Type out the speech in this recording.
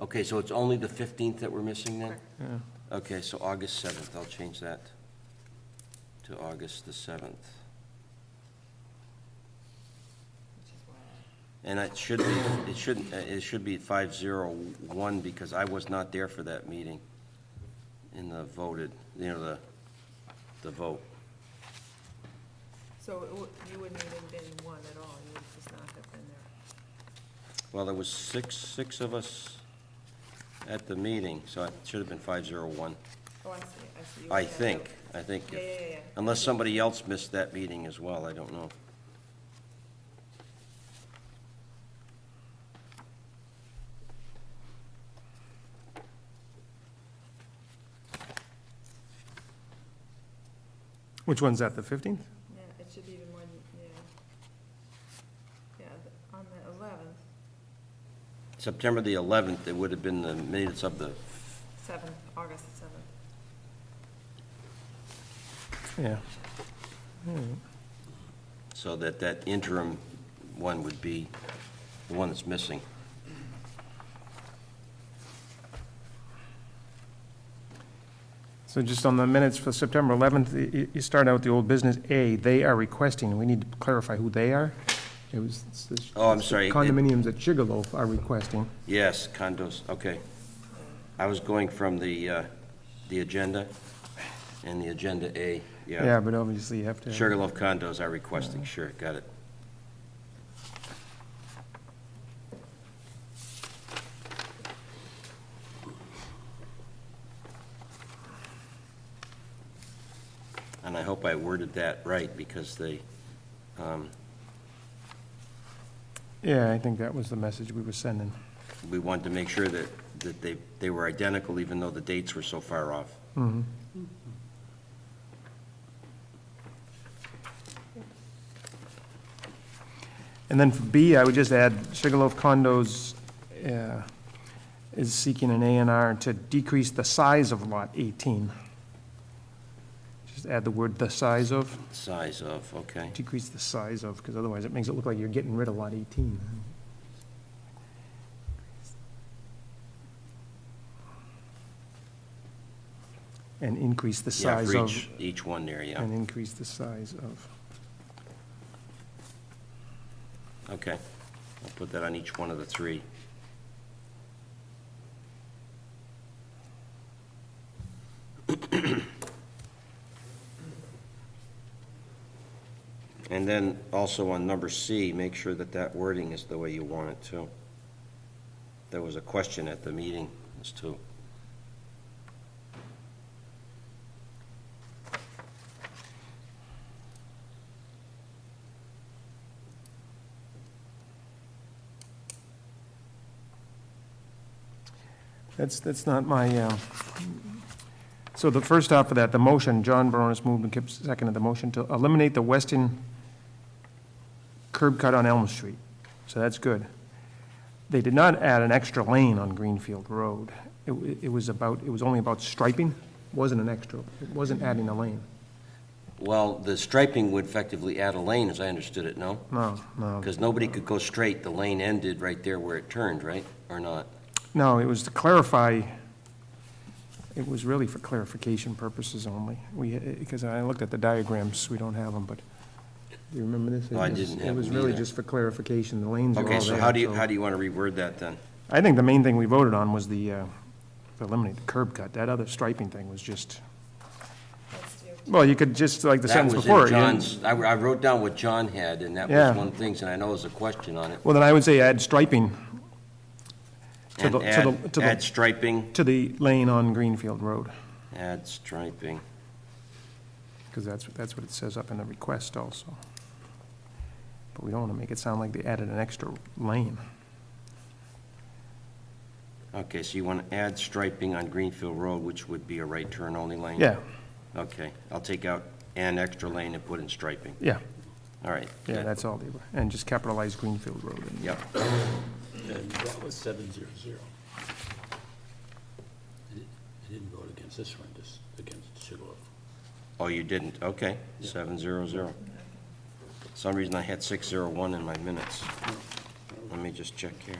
Okay, so it's only the 15th that we're missing then? Correct. Yeah. Okay, so August 7th, I'll change that to August the 7th. which is why I- And it should be, it shouldn't, uh, it should be 501 because I was not there for that meeting in the voted, you know, the, the vote. So it would- you wouldn't even been one at all, you would just not have been there. Well, there was six, six of us at the meeting, so it should have been 501, Oh, I see, I see. You I would have think, to- I think. if- Yeah, yeah, yeah, yeah. Unless somebody else missed that meeting as well, I don't know. Which one's that, the 15th? Yeah, it should be even more, than- yeah. Yeah, th- on the eleventh, September the 11th, it would have been the minutes of the, seventh, August the seventh. Yeah. so that that interim one would be the one that's missing. So just on the minutes for September 11th, y- y- you start out with the old business A, they are requesting, we need to clarify who they are. It was it's the- Oh, I'm it's the sorry. Condominiums at Sugarloaf are requesting. Yes, condos, okay. I was going from the, uh, the agenda and the agenda A, Yeah, yeah. but obviously you have to. Sugarloaf condos are requesting, sure, got it. And I hope I worded that right because they, um, Yeah, I think that was the message we were sending. we wanted to make sure that, that they, they were identical even though the dates were so far off. Mhm. And then for B, I would just add Sugarloaf Condos uh, is seeking an A and R to decrease the size of Lot 18. Just add the word "the size of," Size of, okay. decrease the size of, because otherwise it makes it look like you're getting rid of Lot 18. And increase the Yeah, size for of. each, each one there, yeah. And increase the size of. Okay. I'll put that on each one of the three. And then also on number C, make sure that that wording is the way you want it too. There was a question at the meeting as to, That's, that's not my, um, so the first off of that, the motion, John Baronis moved and Kip seconded the motion to eliminate the western curb cut on Elm Street. So that's good. They did not add an extra lane on Greenfield Road. It, wa- it was about, it was only about striping, wasn't an extra, it wasn't adding a lane. well, the striping would effectively add a lane, as I understood it, no? No, no. Because nobody could go straight. The lane ended right there where it turned, right? Or not? No, it was to clarify, it was really for clarification purposes only. We, because I looked at the diagrams, we don't have them, but, do you remember this? No, I It was- didn't have It was them really either. just for clarification, the lanes are all there. Okay, so how do you, how do you want to reword that then? I think the main thing we voted on was the, uh, to eliminate the curb cut. That other striping thing was just, Let's do, well, you could just, like the That sentence was before. in you didn't- John's, I I wrote down what John had, and that Yeah. was one of the things, and I know there's a question on it. Well, then I would say add striping to And the, to the, add, to add the, striping, to the lane on Greenfield Road, add striping. because that's, that's what it says up in the request also. But we don't want to make it sound like they added an extra lane. Okay, so you want to add striping on Greenfield Road, which would be a right turn only lane? Yeah, Okay, I'll take out an extra lane and put in striping. yeah, All right. yeah, good. that's all they were, and just capitalize Greenfield Road. and- Yep, And that was seven zero zero. I di- I didn't vote against this one, just against Sugarloaf. oh, you didn't, okay, seven zero zero. Some reason I had six zero one in my minutes. Let me just check here.